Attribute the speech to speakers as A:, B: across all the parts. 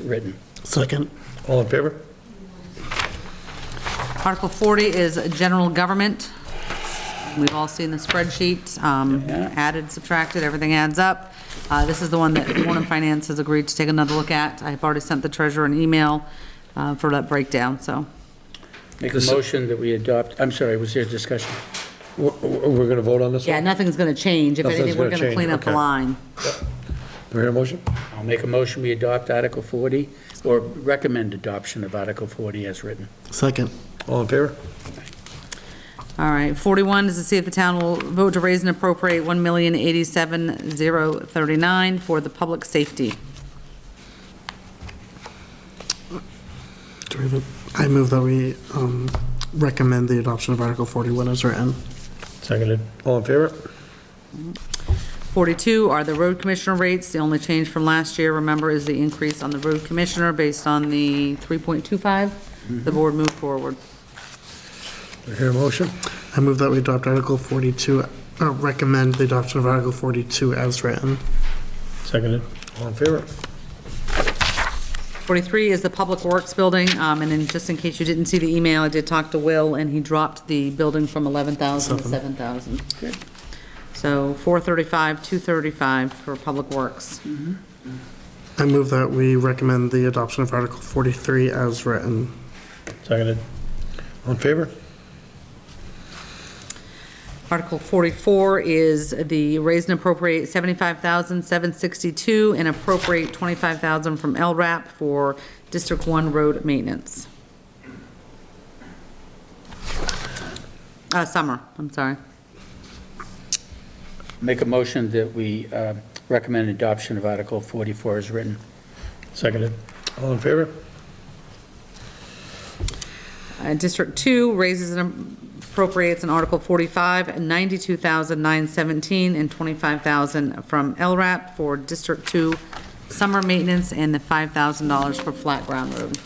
A: written.
B: Second.
A: All in favor?
C: Article 40 is general government. We've all seen the spreadsheet, um, added, subtracted, everything adds up. Uh, This is the one that Warren Finance has agreed to take another look at. I've already sent the treasurer an email uh, for that breakdown, so.
A: Make a motion that we adopt, I'm sorry, was there discussion?
B: We're going to vote on this?
C: Yeah, nothing's going to change. If
B: Nothing's
C: anything, we're
B: gonna
C: going to
B: change,
C: clean up the
B: okay.
C: line.
B: Do we hear a motion?
A: I'll make a motion, we adopt Article 40, or recommend adoption of Article 40 as written.
B: Second. All in favor?
C: All right, 41 is to see if the town will vote to raise and appropriate 1087039 for the public safety.
D: Do we have a- I move that we um, recommend the adoption of Article 41 as written.
B: Seconded. All in favor?
C: 42 are the road commissioner rates. The only change from last year, remember, is the increase on the road commissioner based on the 3.25. The board moved forward.
B: Do we hear a motion?
D: I move that we adopt Article 42, uh, recommend the adoption of Article 42 as written.
B: Seconded. All in favor?
C: 43 is the Public Works Building, um, and then just in case you didn't see the email, I did talk to Will, and he dropped the building from 11,000 to 7,000. So 435, 235 for Public Works.
D: I move that we recommend the adoption of Article 43 as written.
B: Seconded. All in favor?
C: Article 44 is the raise and appropriate 75,762 and appropriate 25,000 from LRAP for District 1 road maintenance. Uh, Summer, I'm sorry.
A: Make a motion that we uh, recommend adoption of Article 44 as written.
B: Seconded. All in favor?
C: Uh, District 2 raises and appropriates in Article 45, 92,917 and 25,000 from LRAP for District 2 summer maintenance and the $5,000 for flat ground road.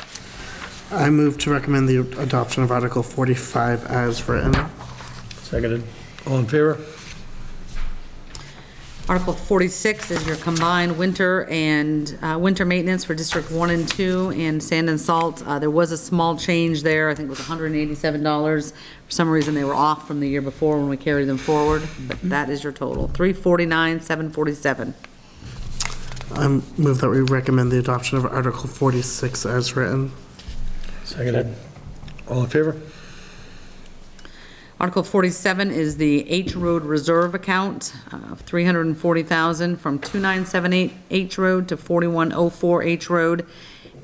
D: I move to recommend the adoption of Article 45 as written.
B: Seconded. All in favor?
C: Article 46 is your combined winter and, uh, winter maintenance for District 1 and 2 and sand and salt. Uh, There was a small change there, I think it was $187. For some reason, they were off from the year before when we carried them forward, but that is your total, 349, 747.
D: I move that we recommend the adoption of Article 46 as written.
B: Seconded. All in favor?
C: Article 47 is the H Road Reserve Account uh, of 340,000 from 2978 H Road to 4104 H Road.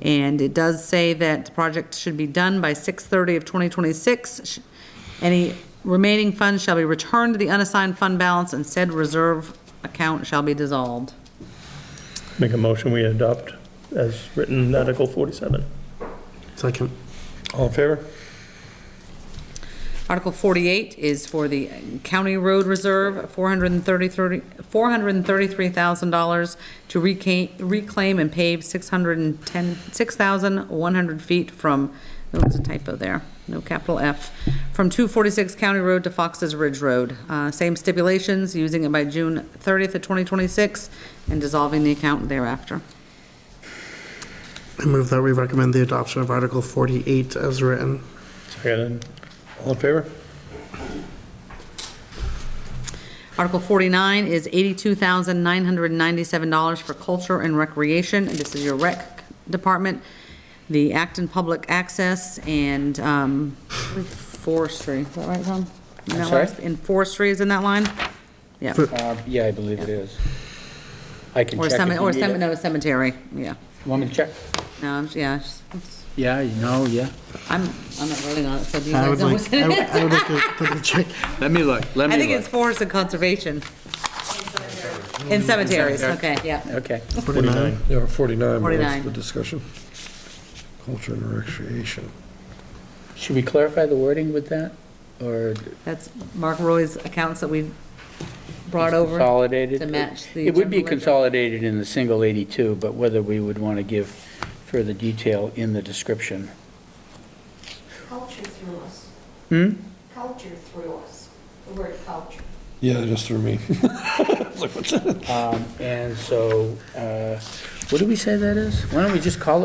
C: And it does say that the project should be done by 6:30 of 2026. Sh- Any remaining funds shall be returned to the unassigned fund balance and said reserve account shall be dissolved.
E: Make a motion, we adopt as written Article 47.
D: Second.
B: All in favor?
C: Article 48 is for the County Road Reserve, $433 $433,000 to reca- reclaim and pave 610 6,100 feet from, there was a typo there, no capital F, from 246 County Road to Fox's Ridge Road. Uh, Same stipulations, using it by June 30th of 2026 and dissolving the account thereafter.
D: I move that we recommend the adoption of Article 48 as written.
B: Seconded. All in favor?
C: Article 49 is $82,997 for culture and recreation. This is your rec department, the Acton Public Access and um, forestry. Is that right, Tom? In that
A: sorry?
C: last- And forestry is in that line? Yeah.
A: Uh, Yeah, I believe it is. I can
C: Or
A: check if
C: cemetery,
A: you
C: or
A: need
C: cemetery,
A: it.
C: no, cemetery, yeah.
A: Want me to check?
C: No, I'm- yeah, it's- it's-
A: Yeah, you know, yeah.
C: I'm, I'm not voting on it, so do
D: I
C: you guys
D: would
C: know
D: like,
C: what's
D: I
C: in
D: would-
C: it?
D: I would like to double check.
A: Let me look, let
C: I think
A: me
C: it's
A: look.
C: forest and conservation. In cemeteries, okay, yeah.
A: Okay.
B: 49. Yeah, 49 was
C: 49.
B: the discussion. Culture and recreation.
A: Should we clarify the wording with that, or
C: That's Mark Roy's accounts that we brought over.
A: consolidated?
C: to match the
A: It would be
C: general ledger.
A: consolidated in the single 82, but whether we would want to give further detail in the description.
F: Culture through us.
A: Hmm?
F: Culture through us, the word culture.
B: Yeah, just through me.
A: Um, And so uh, What do we say that is? Why don't we just call it